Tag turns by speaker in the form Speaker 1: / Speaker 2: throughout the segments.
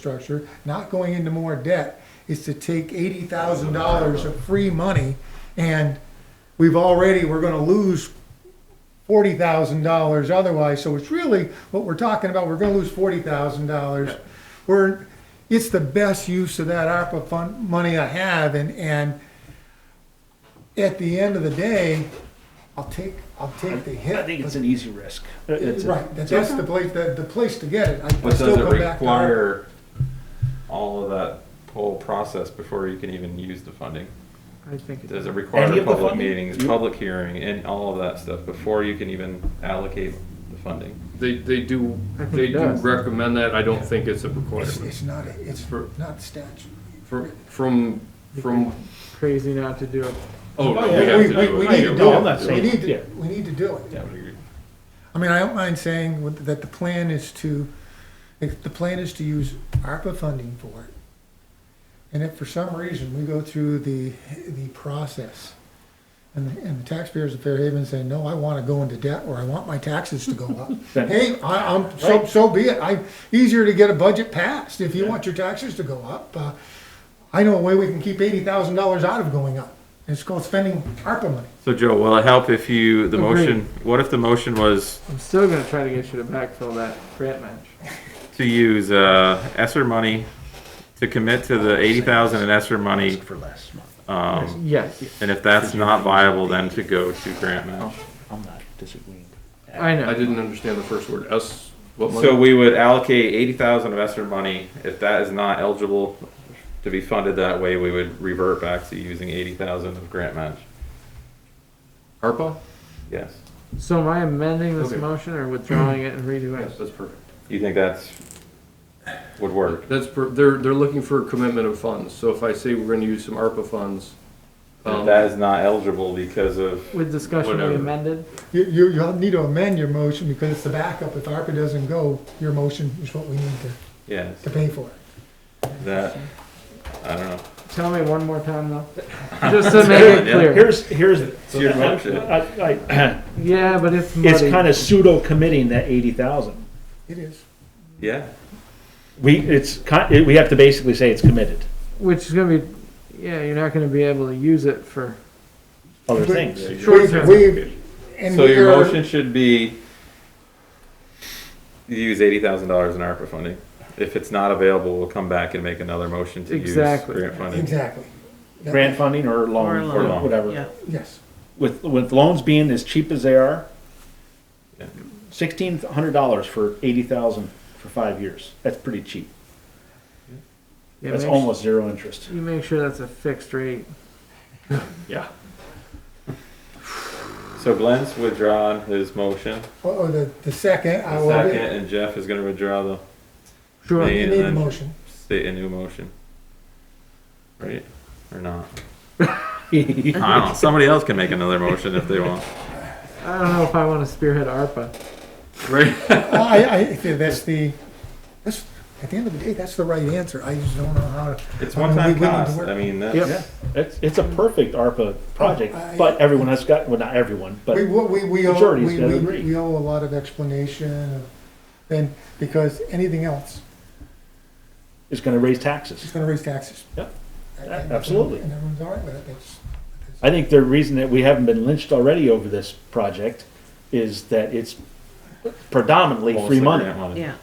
Speaker 1: infrastructure, not going into more debt, is to take eighty thousand dollars of free money and we've already, we're gonna lose forty thousand dollars otherwise, so it's really, what we're talking about, we're gonna lose forty thousand dollars. We're, it's the best use of that ARPA fund, money I have and, and at the end of the day, I'll take, I'll take the hit.
Speaker 2: I think it's an easy risk. It's a-
Speaker 1: Right, that's, that's the place, the, the place to get it. I- I
Speaker 3: But
Speaker 1: still
Speaker 3: does it
Speaker 1: come back to our-
Speaker 3: require all of that whole process before you can even use the funding?
Speaker 4: I think
Speaker 3: Does it
Speaker 2: Any
Speaker 3: require
Speaker 2: of the
Speaker 3: public
Speaker 2: funding?
Speaker 3: meetings, public hearing, and all of that stuff before you can even allocate the funding?
Speaker 5: They, they do,
Speaker 4: I think
Speaker 5: they
Speaker 4: it
Speaker 5: do
Speaker 4: does.
Speaker 5: recommend that, I don't think it's a
Speaker 1: It's,
Speaker 5: requirement.
Speaker 1: it's not, a- it's
Speaker 5: For-
Speaker 1: not statute.
Speaker 5: Fr- From, from,
Speaker 4: crazy not to do it.
Speaker 5: oh, no,
Speaker 2: yeah,
Speaker 5: we have to
Speaker 1: We, we,
Speaker 5: do
Speaker 1: we
Speaker 5: it.
Speaker 1: need
Speaker 5: too.
Speaker 1: to
Speaker 2: No, I'm
Speaker 1: do
Speaker 2: not
Speaker 1: it. We
Speaker 2: saying-
Speaker 1: need
Speaker 2: yeah.
Speaker 1: to, we need to do it.
Speaker 3: I would agree.
Speaker 1: I mean, I don't mind saying with- that the plan is to, if the plan is to use ARPA funding for it. And if for some reason we go through the, the process and, the- and the taxpayers of Fair Haven say, no, I wanna go into debt or I want my taxes to go up.
Speaker 2: Then-
Speaker 1: Hey, I, I'm, so,
Speaker 2: Right.
Speaker 1: so be it. I, easier to get a budget passed if you want your taxes to go up. Uh, I know a way we can keep eighty thousand dollars out of going up. It's called spending ARPA money.
Speaker 3: So Joe, will it help if you, the
Speaker 4: Agreed.
Speaker 3: motion, what if the motion was
Speaker 4: I'm still gonna try to get you to backfill that grant match.
Speaker 3: to use, uh, Esser money, to commit to the eighty thousand in Esser money,
Speaker 2: For last month. Oh.
Speaker 3: um,
Speaker 4: Yes,
Speaker 3: and if that's not viable, then to go to grant match?
Speaker 2: I'm not disagreeing.
Speaker 4: I
Speaker 5: I
Speaker 4: know.
Speaker 5: didn't understand the first word, S, what
Speaker 3: So
Speaker 5: money?
Speaker 3: we would allocate eighty thousand of ESSER money. If that is not eligible to be funded that way, we would revert back to using eighty thousand of grant match.
Speaker 5: ARPA?
Speaker 3: Yes.
Speaker 4: So am I amending this
Speaker 5: Okay.
Speaker 4: motion or withdrawing it and redoing
Speaker 5: Yes,
Speaker 4: it?
Speaker 5: that's perfect.
Speaker 3: You think that's, would work?
Speaker 5: That's, per- they're, they're looking for a commitment of funds, so if I say we're gonna use some ARPA funds,
Speaker 3: If
Speaker 5: um,
Speaker 3: that is not eligible because of,
Speaker 4: With discussion we
Speaker 3: Whatever.
Speaker 4: amended?
Speaker 1: You, you, you'll need to amend your motion because it's the backup. If ARPA doesn't go, your motion is what we need to,
Speaker 3: yes,
Speaker 1: to pay for.
Speaker 3: that, I don't know.
Speaker 4: Tell me one more time though. Just to make it
Speaker 3: Yeah.
Speaker 4: clear.
Speaker 2: Here's, here's.
Speaker 3: It's your motion.
Speaker 2: I- I-
Speaker 4: Yeah, but it's muddy.
Speaker 2: It's kind of pseudo committing that eighty thousand.
Speaker 1: It is.
Speaker 3: Yeah.
Speaker 2: We, it's, ki- we have to basically say it's committed,
Speaker 4: Which is gonna be, yeah, you're not gonna be able to use it for,
Speaker 2: other
Speaker 1: But-
Speaker 2: things.
Speaker 4: Short term.
Speaker 1: We, and
Speaker 3: So your
Speaker 1: we're-
Speaker 3: motion should be you use eighty thousand dollars in ARPA funding. If it's not available, we'll come back and make another motion to use
Speaker 4: Exactly.
Speaker 3: grant funding.
Speaker 1: Exactly. That-
Speaker 2: Grant funding or
Speaker 6: Or
Speaker 2: loan,
Speaker 6: a
Speaker 3: or
Speaker 2: or
Speaker 3: loan.
Speaker 2: whatever.
Speaker 1: Yes.
Speaker 2: With, with loans being as cheap as they are,
Speaker 3: Yeah.
Speaker 2: sixteen hundred dollars for eighty thousand for five years, that's pretty cheap.
Speaker 4: yeah,
Speaker 2: That's
Speaker 4: make su-
Speaker 2: almost zero interest.
Speaker 4: you make sure that's a fixed rate.
Speaker 2: Yeah.
Speaker 3: So Glenn's withdrawn his motion.
Speaker 1: Oh, oh, the, the second, I
Speaker 3: The
Speaker 1: will.
Speaker 3: second, and Jeff is gonna withdraw the
Speaker 4: Sure.
Speaker 3: Yeah.
Speaker 1: You need the motion.
Speaker 3: state a new motion. Right? Or not? I
Speaker 2: Well,
Speaker 3: don't know. Somebody else can make another motion if they want.
Speaker 4: I don't know if I wanna spearhead ARPA.
Speaker 5: right?
Speaker 1: Oh, I, I, I think that's the, that's, at the end of the day, that's the right answer. I just don't know how to.
Speaker 3: It's
Speaker 1: I mean, we-
Speaker 3: one time
Speaker 1: we need to
Speaker 3: cost.
Speaker 1: work-
Speaker 3: I mean,
Speaker 4: Yep.
Speaker 3: that's,
Speaker 2: It's, it's a perfect ARPA project, but everyone has got, well, not everyone,
Speaker 1: Oh, We,
Speaker 2: but
Speaker 1: we, we owe,
Speaker 2: Majority's
Speaker 1: we,
Speaker 2: gotta
Speaker 1: we
Speaker 2: agree.
Speaker 1: we owe a lot of explanation and, because anything else
Speaker 2: it's gonna raise
Speaker 1: is
Speaker 2: taxes.
Speaker 1: gonna raise taxes.
Speaker 2: Yep.
Speaker 1: And- and-
Speaker 2: Absolutely.
Speaker 1: And everyone's all right with it. That's, that's.
Speaker 2: I think the reason that we haven't been lynched already over this project is that it's predominantly free
Speaker 3: mostly grant
Speaker 2: money.
Speaker 6: Yeah,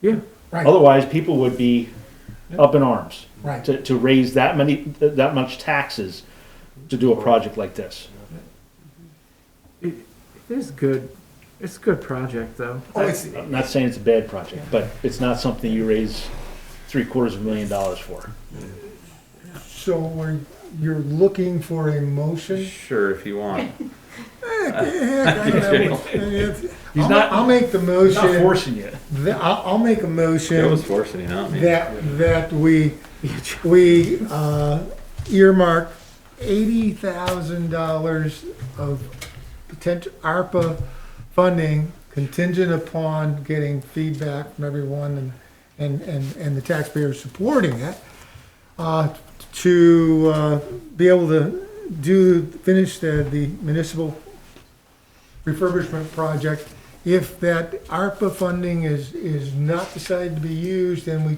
Speaker 4: Yeah,
Speaker 1: Right,
Speaker 2: Otherwise, people would be up in arms
Speaker 1: right.
Speaker 2: to, to raise that many, that much taxes to do a project like this.
Speaker 4: it, it is good. It's a good project though.
Speaker 1: Oh, it's,
Speaker 2: I'm not saying it's a bad project, but it's not something you raise three quarters of a million dollars for.
Speaker 1: So we're, you're looking for a motion?
Speaker 3: sure, if you want.
Speaker 1: Heck, I don't know. It's-
Speaker 2: He's
Speaker 1: I'll,
Speaker 2: not-
Speaker 1: I'll make the
Speaker 2: I'm Not
Speaker 1: motion,
Speaker 2: forcing you.
Speaker 1: that- I'll, I'll make a
Speaker 3: Joe was
Speaker 1: motion
Speaker 3: forcing you, not me.
Speaker 1: that, that we, we uh, earmark eighty thousand dollars of potential ARPA funding contingent upon getting feedback from everyone and, and, and, and the taxpayers supporting it, uh, to, uh, be able to do, finish the, the municipal refurbishment project If that ARPA funding is, is not decided to be used, then we